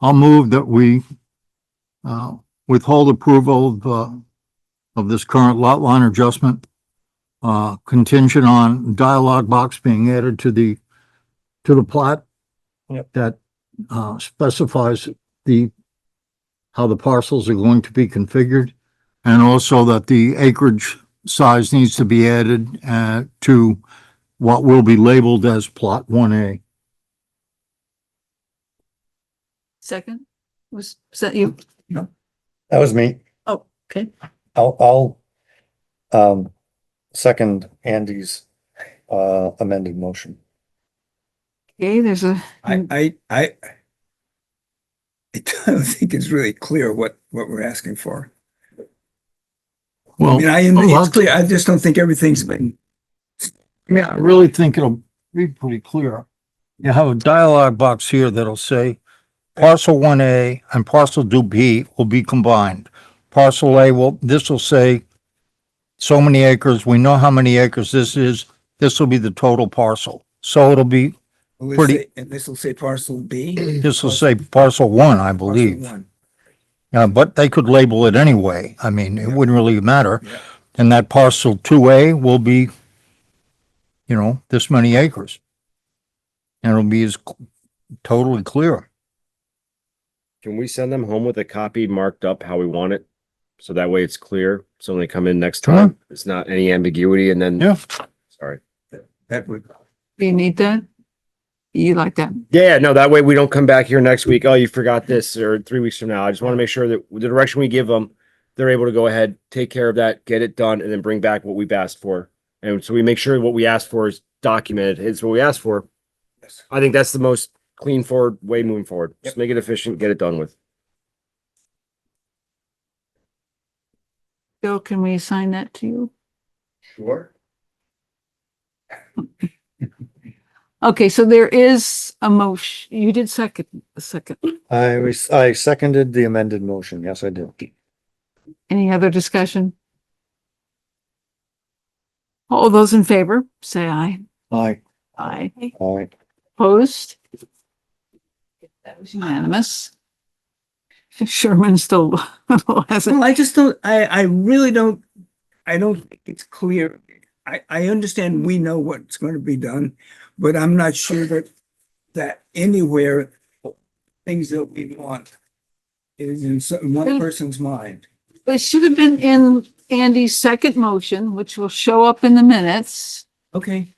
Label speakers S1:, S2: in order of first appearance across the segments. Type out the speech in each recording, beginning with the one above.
S1: I'll move that we uh, withhold approval of, uh, of this current lot line adjustment uh, contingent on dialogue box being added to the, to the plot
S2: Yep.
S1: that uh, specifies the, how the parcels are going to be configured, and also that the acreage size needs to be added uh, to what will be labeled as Plot 1A.
S3: Second, was, was that you?
S2: That was me.
S3: Oh, okay.
S2: I'll, I'll, um, second Andy's, uh, amended motion.
S3: Okay, there's a,
S4: I, I, I, I don't think it's really clear what, what we're asking for. I
S1: Well,
S4: mean, I,
S1: well,
S4: it's clear, I just don't think everything's been,
S1: I really think it'll be pretty clear. You have a dialogue box here that'll say parcel 1A and parcel 2B will be combined. Parcel A will, this will say so many acres, we know how many acres this is, this will be the total parcel. So it'll be,
S4: well, let's
S1: Pretty-
S4: say- and this will say parcel B.
S1: this will say parcel 1, I believe.
S4: Parcel one.
S1: Uh, but they could label it anyway. I mean, it wouldn't really matter.
S4: Yeah.
S1: And that parcel two A will be, you know, this many acres. And it'll be as c- totally clear.
S5: Can we send them home with a copy marked up how we want it? So that way it's clear. So when they come in next
S1: Sure.
S5: time, it's not any ambiguity and then,
S1: Yeah.
S5: sorry.
S4: That would,
S3: do you need that? You like that?
S5: Yeah, no, that way we don't come back here next week. Oh, you forgot this or three weeks from now. I just want to make sure that the direction we give them, they're able to go ahead, take care of that, get it done and then bring back what we've asked for. And so we make sure what we asked for is documented. It's what we asked for.
S4: Yes.
S5: I think that's the most clean forward way moving forward. Just
S4: Yep.
S5: make it efficient, get it done with.
S3: Bill, can we assign that to you?
S5: Sure.
S3: Okay, so there is a motion. You did second, a second.
S2: I was, I seconded the amended motion. Yes, I did.
S3: Any other discussion? All those in favor, say aye.
S2: Aye.
S3: Aye.
S2: All right.
S3: Opposed? That was unanimous. Sherman still hasn't.
S4: well, I just don't, I, I really don't, I don't think it's clear. I, I understand we know what's going to be done, but I'm not sure that, that anywhere, things that we want is in some- one person's mind.
S3: It should have been in Andy's second motion, which will show up in the minutes,
S4: Okay,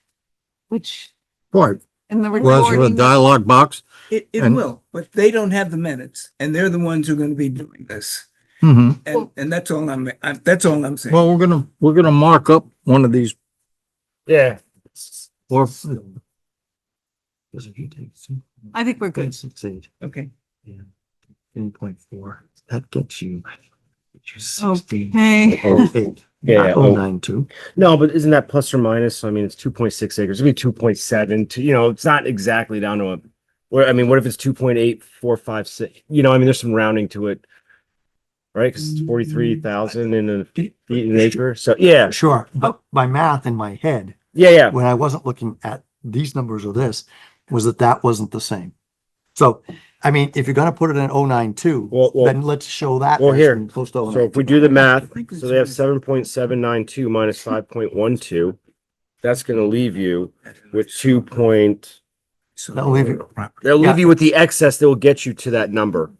S3: which
S1: Right.
S3: in the
S1: Was it a
S3: recording.
S1: dialogue box?
S4: it, it
S1: And-
S4: will, but they don't have the minutes and they're the ones who are going to be doing this.
S1: hmm
S4: And, and that's all I'm, I- that's all I'm saying.
S1: Well, we're gonna, we're gonna mark up one of these
S5: Yeah.
S1: or
S6: Doesn't he take
S3: I think we're good.
S6: Six eight,
S4: Okay.
S6: ten point four, that gets you. gets you
S3: Oh.
S6: 16.
S3: Hey,
S5: Oh,
S6: Eight,
S5: yeah.
S6: not
S5: oh.
S6: 092.
S5: No, but isn't that plus or minus? I mean, it's two point six acres, it'd be two point seven, to, you know, it's not exactly down to a. Where, I mean, what if it's two point eight, four, five, six, you know, I mean, there's some rounding to it. Right, cause it's forty-three thousand in a feet an acre, so, yeah,
S6: Sure,
S3: Oh.
S6: but my math in my head,
S5: yeah, yeah,
S6: when I wasn't looking at these numbers or this, was that that wasn't the same. So, I mean, if you're gonna put it in 092,
S5: well,
S6: then
S5: well,
S6: let's show that.
S5: well,
S6: as
S5: here.
S6: being Close to
S5: so if
S6: 092.
S5: we do the math,
S4: I think
S5: so they have
S4: it's-
S5: seven point seven nine two minus five point one two. That's gonna leave you with two point,
S4: So-
S6: That'll leave you.
S5: they'll
S6: Yeah.
S5: leave you with the excess that will get you to that number,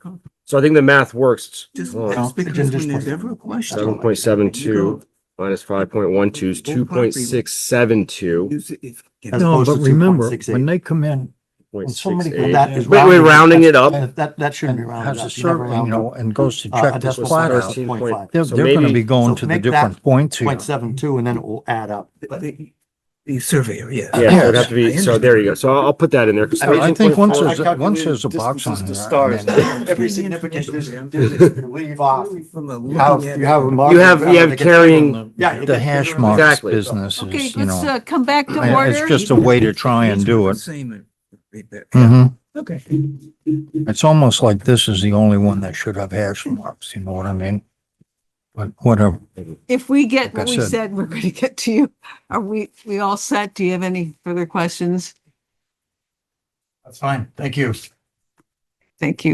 S5: so I think the math works.
S4: Just,
S5: Hold on.
S6: No,
S4: just because
S6: agenda
S4: when there's
S6: point.
S4: ever a question.
S5: Seven point seven two minus five point one two is two point six seven two.
S4: Use it if-
S6: As
S1: No,
S6: opposed
S1: but
S6: to
S1: remember,
S6: 2.68.
S1: when they come in,
S5: Point six
S1: somebody-
S5: eight.
S6: That is
S5: Wait, wait, rounding it up.
S6: That, that- that shouldn't
S1: and
S6: be rounded
S1: has a
S6: up. You never
S1: circle, you
S6: round
S1: know,
S6: up.
S1: and goes to
S6: Uh, a
S1: check this
S6: decimal
S1: plot
S6: sign is
S1: out,
S5: Thirteen
S6: 0.5.
S5: point-
S1: they're,
S5: So
S1: they're gonna
S5: maybe-
S1: be going to
S6: so
S1: the
S6: make that
S1: different points here.
S6: Point seven two, and then it will add up.
S4: The- The, the surveyor, yeah.
S5: Yeah, so it'd have to be, so there you go. So I'll, I'll put that in there. 'cause
S6: I mean,
S1: I think
S5: 13.4
S1: once
S6: I
S1: there's, a- once
S6: calculated
S1: there's a box on
S6: distances to
S1: there. I
S6: stars.
S1: mean-
S6: Every significant distance you leave off.
S4: From a
S6: You have,
S4: looking
S6: you have a
S4: at.
S6: mark.
S5: You have- you have
S6: that gets-
S5: carrying-
S6: Yeah, it
S1: the
S6: gets-
S1: hash marks
S5: Exactly.
S1: business
S3: okay,
S1: is, you
S3: let's
S1: know,
S3: uh, come back to
S1: I-
S3: order.
S1: it's just a way to try and do it.
S4: Same. and read that.
S1: Mhm.
S6: Mm-hmm.
S4: Okay.
S1: It's almost like this is the only one that should have hash marks, you know what I mean? But whatever.
S3: If we get
S1: Like I
S3: what we
S1: said.
S3: said, we're going to get to you. Are we, we all set? Do you have any further questions?
S6: That's fine. Thank you.
S3: Thank you.